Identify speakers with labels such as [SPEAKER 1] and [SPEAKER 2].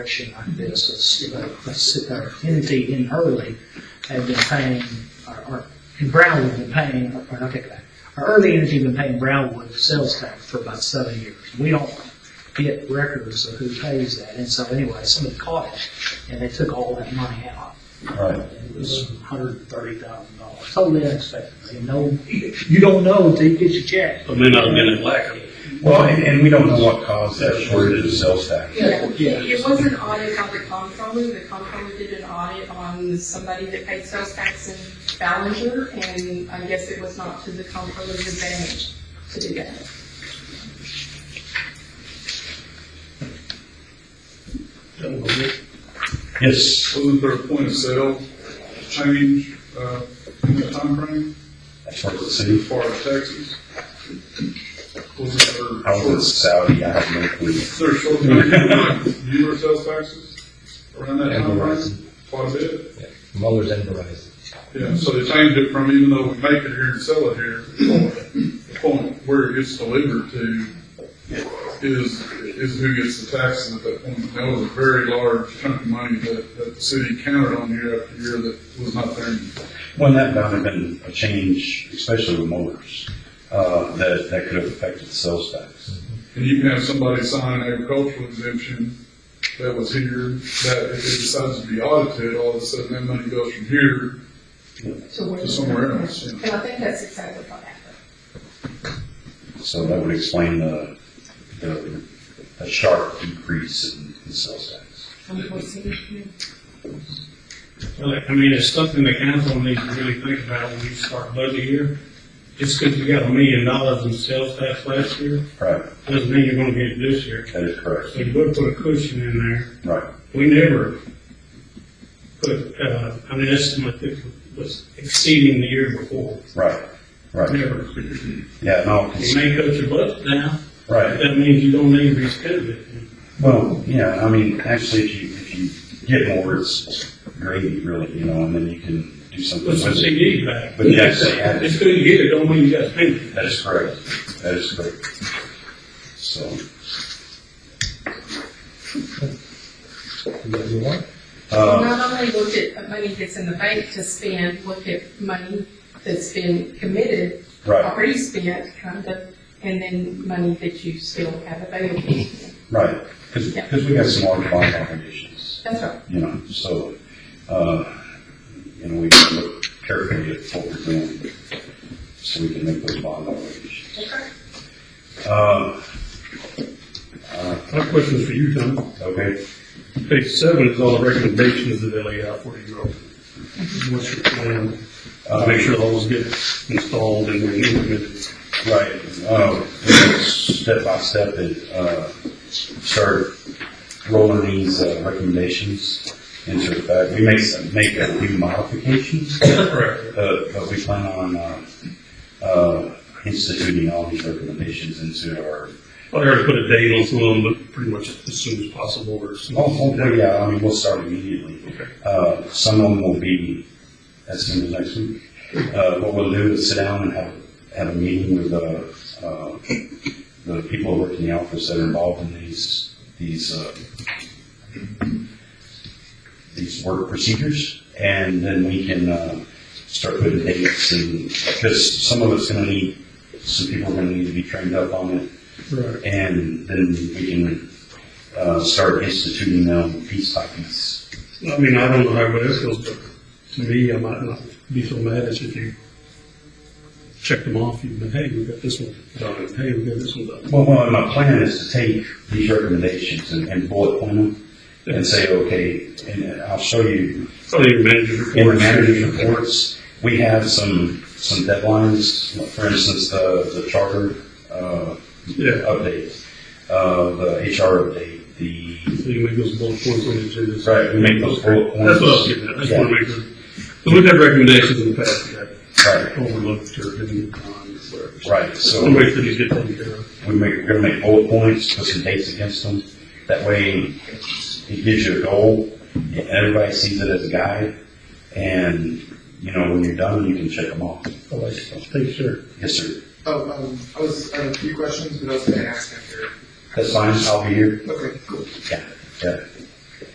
[SPEAKER 1] situation like this, is, you know, let's sit there, Entity in Hurley have been paying, or- or, and Brownwood been paying, or I'll take that. Our early entity been paying Brownwood sales tax for about seven years. We don't get records of who pays that, and so anyway, somebody caught it, and they took all that money out.
[SPEAKER 2] Right.
[SPEAKER 1] It was hundred and thirty thousand dollars, totally unexpected, you know, you don't know till you get your check.
[SPEAKER 3] But may not have been in lack of.
[SPEAKER 2] Well, and, and we don't know what caused that shortage of sales tax.
[SPEAKER 4] Yeah,
[SPEAKER 1] Yeah.
[SPEAKER 4] it was an audit on the comptroller, the comptroller did an audit on somebody that paid sales tax in Ballinger, and I guess it was not to the comptroller's advantage to do that.
[SPEAKER 2] Yes.
[SPEAKER 5] Wasn't there a point of sale change uh, in that timeframe
[SPEAKER 2] For the city,
[SPEAKER 5] as far as taxes? Wasn't
[SPEAKER 2] I
[SPEAKER 5] there
[SPEAKER 2] was in
[SPEAKER 5] short,
[SPEAKER 2] Saudi, I have no clue.
[SPEAKER 5] there short, you were sales taxes around that
[SPEAKER 6] And
[SPEAKER 5] timeframe?
[SPEAKER 6] Verizon.
[SPEAKER 5] Quite a bit.
[SPEAKER 6] Mueller's and Verizon.
[SPEAKER 5] Yeah, so they changed it from even though we make it here and sell it here, the point where it gets delivered to is, is who gets the taxes at that point. That was a very large chunk of money that, that the city counted on year after year that was not there anymore.
[SPEAKER 2] When that bound have been a change, especially with motors, uh, that, that could have affected the sales tax.
[SPEAKER 5] And you can have somebody sign an agricultural exemption that was here, that if it decides to be audited, all of a sudden that money goes from here
[SPEAKER 4] To where-
[SPEAKER 5] to somewhere else. you know.
[SPEAKER 4] And I think that's exactly what happened.
[SPEAKER 2] So that would explain the, the, the sharp decrease in, in sales tax.
[SPEAKER 4] Unfortunately.
[SPEAKER 3] Well, I mean, it's something the council needs to really think about when you start budget year. Just because you got a million dollars in sales tax last year,
[SPEAKER 2] Right,
[SPEAKER 3] doesn't mean you're gonna get it this year.
[SPEAKER 2] that is correct,
[SPEAKER 3] So you would put a cushion in there.
[SPEAKER 2] right.
[SPEAKER 3] We never put, uh, an estimate that was exceeding the year before,
[SPEAKER 2] Right, right,
[SPEAKER 3] never.
[SPEAKER 2] yeah, no,
[SPEAKER 3] You
[SPEAKER 2] it's-
[SPEAKER 3] may cut your budget down, but
[SPEAKER 2] right.
[SPEAKER 3] that means you don't need to spend it.
[SPEAKER 2] Well, yeah, I mean, actually, if you, if you get more, it's gravy, really, you know, and then you can do something
[SPEAKER 3] Put some
[SPEAKER 2] with it.
[SPEAKER 3] CD back.
[SPEAKER 2] But you actually add
[SPEAKER 3] It's
[SPEAKER 2] it,
[SPEAKER 3] good to get it, don't mean you gotta spend it.
[SPEAKER 2] that is correct, that is correct. So,
[SPEAKER 6] You got your one?
[SPEAKER 2] uh,
[SPEAKER 4] Not only look at money that's in the bank to spend, look at money that's been committed,
[SPEAKER 2] right,
[SPEAKER 4] already spent, kind of, and then money that you still have available.
[SPEAKER 2] right, because, we got some large bond obligations,
[SPEAKER 4] That's right.
[SPEAKER 2] you know, so, uh, you know, we look carefully at what we're doing, so we can make those bond obligations.
[SPEAKER 4] That's right.
[SPEAKER 2] Uh,
[SPEAKER 7] My question is for you, Tom.
[SPEAKER 2] okay,
[SPEAKER 7] Page seven is all the recommendations that they lay out for you. What's your plan?
[SPEAKER 2] Uh,
[SPEAKER 7] To make sure those get installed and then implemented.
[SPEAKER 2] Right, um, step by step, it, uh, start rolling these uh, recommendations into effect. We make some, make a few modifications, uh,
[SPEAKER 7] Correct.
[SPEAKER 2] but, but we plan on, uh, uh, instituting all these recommendations into our,
[SPEAKER 7] I already put a date on some of them, but pretty much as soon as possible or as soon as-
[SPEAKER 2] hopefully, Oh, yeah, I mean, we'll start immediately.
[SPEAKER 7] Okay.
[SPEAKER 2] Uh, some of them will be as soon as next week. Uh, what we'll do is sit down and have, have a meeting with, uh, uh, the people who work in the office that are involved in these, these, uh, these work procedures, and then we can, uh, start putting dates and, because some of it's gonna need, some people are gonna need to be trained up on it.
[SPEAKER 7] Right.
[SPEAKER 2] And then we can, uh, start instituting them piece by piece.
[SPEAKER 7] I mean, I don't know how everybody else feels, but to me, I might not be so mad as if you check them off, you've been, hey, we got this one done, and hey, we got this one done.
[SPEAKER 2] Well, well, my plan is to take these recommendations and, and bullet point them and say, okay, and I'll show you
[SPEAKER 7] Probably your manager's report.
[SPEAKER 2] in the manager's reports, we have some, some deadlines, for instance, the, the charter, uh,
[SPEAKER 7] Yeah,
[SPEAKER 2] update, uh, the HR update, the,
[SPEAKER 7] so you make those bullet points on the agenda.
[SPEAKER 2] right, we make those bullet points.
[SPEAKER 7] That's what I was getting at, I just wanna make sure, because we've had recommendations in the past that
[SPEAKER 2] Right,
[SPEAKER 7] overlooked or given on, whatever.
[SPEAKER 2] right, so.
[SPEAKER 7] So make sure these get taken care of.
[SPEAKER 2] we make, we're gonna make bullet points, put some dates against them. That way, it gives you a goal, and everybody sees it as a guide, and, you know, when you're done, you can check them off.
[SPEAKER 6] Oh, I see. Thank you, sir.
[SPEAKER 2] Yes, sir.
[SPEAKER 8] Oh, um, I was, I had a few questions, but I was gonna ask after.
[SPEAKER 2] That's fine, I'll be here.
[SPEAKER 8] Okay, cool.
[SPEAKER 2] Yeah,